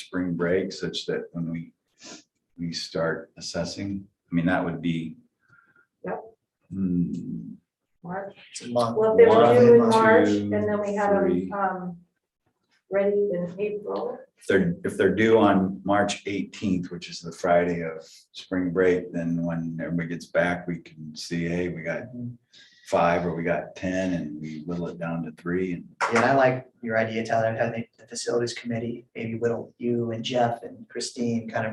spring break such that when we, we start assessing, I mean, that would be. Yep. Hmm, March. It's a month. Well, if they were due in One, March two, and then we have them, three. um, ready in April. If they're, if they're due on March eighteenth, which is the Friday of spring break, then when everybody gets back, we can see, hey, we got five or we got ten and we whittle it down to three and Yeah, and I like your idea, Tyler, of having the facilities committee, maybe whittle you and Jeff and Christine, kind of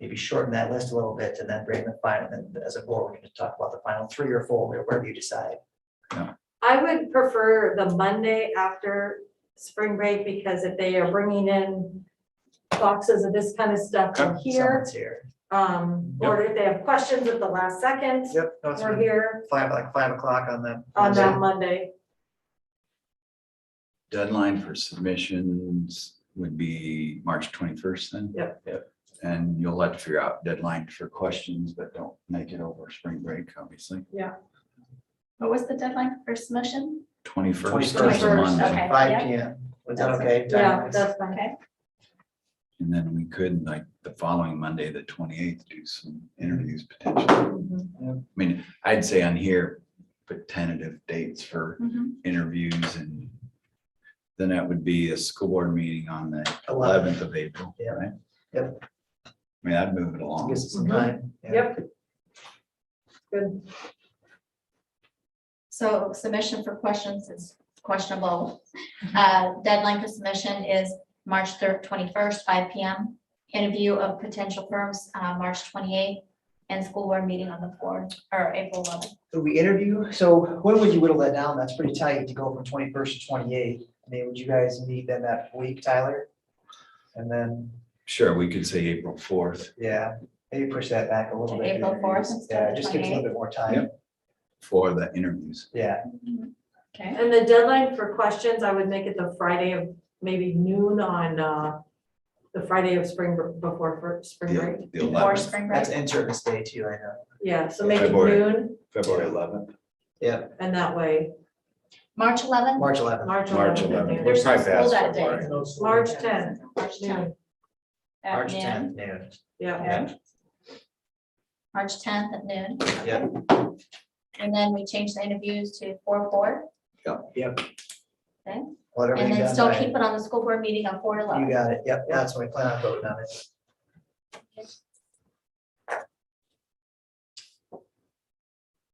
maybe shorten that list a little bit and then bring the final, and then as a board, we're gonna talk about the final three or four, or wherever you decide. I would prefer the Monday after spring break because if they are bringing in boxes of this kind of stuff from here, Someone's here. um, or if they have questions at the last second, Yep, no, it's we're really here five, like five o'clock on the. on that Monday. deadline for submissions would be March twenty-first then? Yep. Yep. And you'll have to figure out deadline for questions, but don't make it over spring break, obviously. What was the deadline for first motion? Twenty-first is 21st, a Monday. okay, Five yeah. P M. Was that That's okay? Yeah, Diane? that's fine. Okay, And then we could, like, the following Monday, the twenty-eighth, do some interviews potentially. Mhm. I mean, I'd say on here, put tentative dates for Mhm. interviews and then that would be a school board meeting on the Eleven. eleventh of April, Yeah. right? Yep. I mean, I'd move it along. Gives us some time. yeah. Yep. Good. so submission for questions is questionable. Uh, Deadline for submission is March third, twenty-first, five P M. Interview of potential firms, uh, March twenty-eighth, and school board meeting on the fourth, or April eleventh. Would we interview? So when would you whittle that down? That's pretty tight to go from twenty-first to twenty-eighth. I mean, would you guys meet then that week, Tyler? And then, Sure, we could say April fourth yeah, maybe push that back a little To bit. April interviews. 4th instead Yeah, of just gives a little bit more time. Yep. for the interviews. Yeah, Okay, And the deadline for questions, I would make it the Friday of maybe noon on, uh, the Friday of spring, br- before for spring The break. the before 11th, spring break. that's in-service day too, I know. Yeah, so make it February. noon February eleventh. Yeah, and that way, March eleventh. March eleventh. March March 11th. eleventh. There's no Probably school past that day. February. March 10th. March tenth. Noon, at March noon. tenth, noon. Yeah, Okay. March tenth at noon. Yeah. And then we change the interviews to four, four, Let and everything then done still by- keep it on the school board meeting on four You eleven. got it. Yep, that's what I plan on voting on it.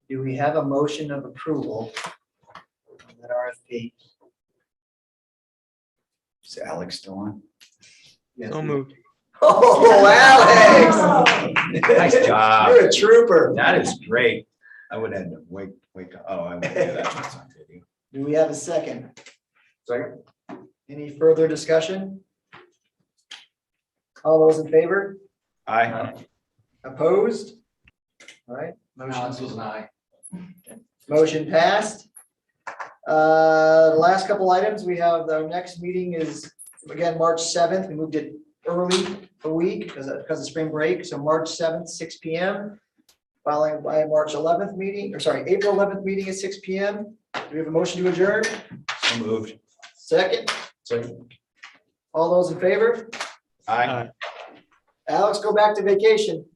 Do we have a motion of approval? on That RFP. Is Alex still on? Yes. So moved. Oh, Alex! Nice job. You're a trooper. That is great. I would have to wake, wake, up. oh, I would do that. That's on video. Do we have a second? Second. Any further discussion? All those in favor? Aye. Opposed? All right. Motion. was an aye. Motion passed. Uh, the last couple items, we have, our next meeting is, again, March seventh, we moved it early a week because of, because of spring break, so March seventh, six P M. Following by a March eleventh meeting, or sorry, April eleventh meeting at six P M. Do we have a motion to adjourn? So moved. Second? Second. All those in favor? uh, Aye. Alex, go back to vacation.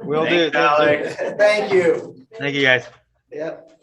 Will do. Thanks, Thank you. Alex. Thank you. Thank you, guys. Yep.